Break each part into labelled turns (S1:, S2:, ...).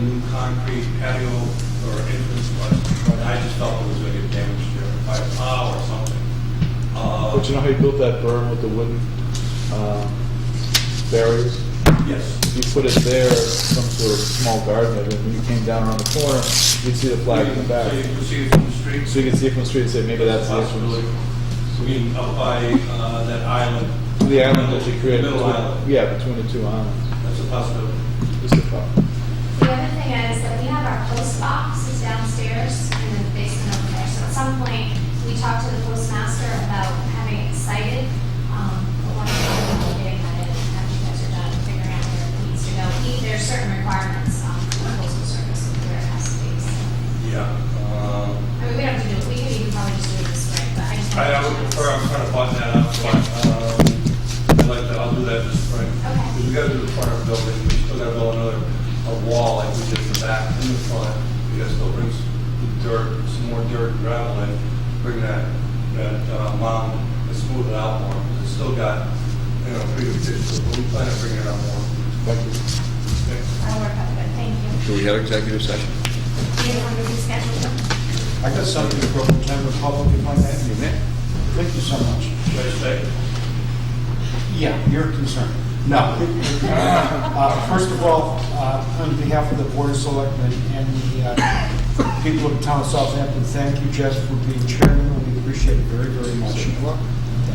S1: concrete patio or entrance was, but I just felt it was gonna get damaged there by a plow or something.
S2: But Oh, you
S1: Uh,
S2: know how you built that berm with the wooden um, barriers?
S1: yes,
S2: You put it there, some sort of small garden, and when you came down around the corner, you'd see the flag in
S1: So
S2: the
S1: you
S2: back.
S1: can see it from the street.
S2: So you can see it from the street and say, maybe that's the
S1: Possibility.
S2: entrance.
S1: So we, up by, uh, that island.
S2: The island that you created.
S1: Middle
S2: between-
S1: island,
S2: Yeah, between the two islands.
S1: that's a possibility.
S2: Just a thought.
S3: The other thing is that we have our post box is downstairs in the basement over there. So at some point, we talked to the postmaster about having it cited. um, But one of the things we're getting at it, after you guys are done figuring out where it needs to go, He- there's certain requirements um, for the postal service of where it has to be. so.
S1: Yeah. um,
S3: I mean, we don't have to do it, we could even probably just do it this way, but I just.
S1: I I would um, prefer, I'm trying to button that up, but um, I'd like to, I'll do that this spring.
S3: Okay.
S1: Because we gotta do the front of the building, we still gotta build another, a wall like we did in the back and the front. We gotta still bring some dirt, some more dirt and gravel in, bring that, that uh, mound, and smooth it out more. 'Cause It's still got, you know, pretty good pitch, but we plan to bring it out more. Okay.
S3: I'll work on it, thank you.
S4: Do we have executive session?
S3: Do you want to reschedule them?
S5: I got something to from the Denver Public, if I may. Thank you so much.
S1: Should I stay?
S5: Yeah, you're concerned. No. Uh, First of all, uh, on behalf of the Board of Selectmen and the uh, people of the town of Southampton, thank you, Jeff, for being chairman. We appreciate it very, very much.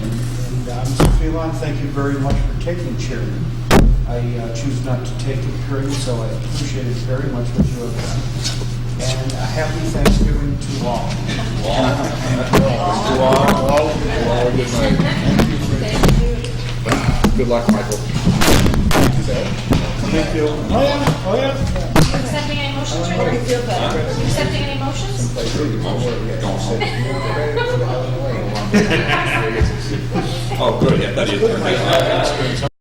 S5: And uh, Mr. Phelan, thank you very much for taking chairman. I uh, choose not to take it, period, so I appreciate it very much what you have done. And a happy Thanksgiving to all.
S2: To all, all, to all, good night. Good luck, Michael.
S5: Thank you. Oh, yeah, oh, yeah.
S3: Accepting any motions, Richard? Accepting any motions?
S4: Oh, good, yeah, that is.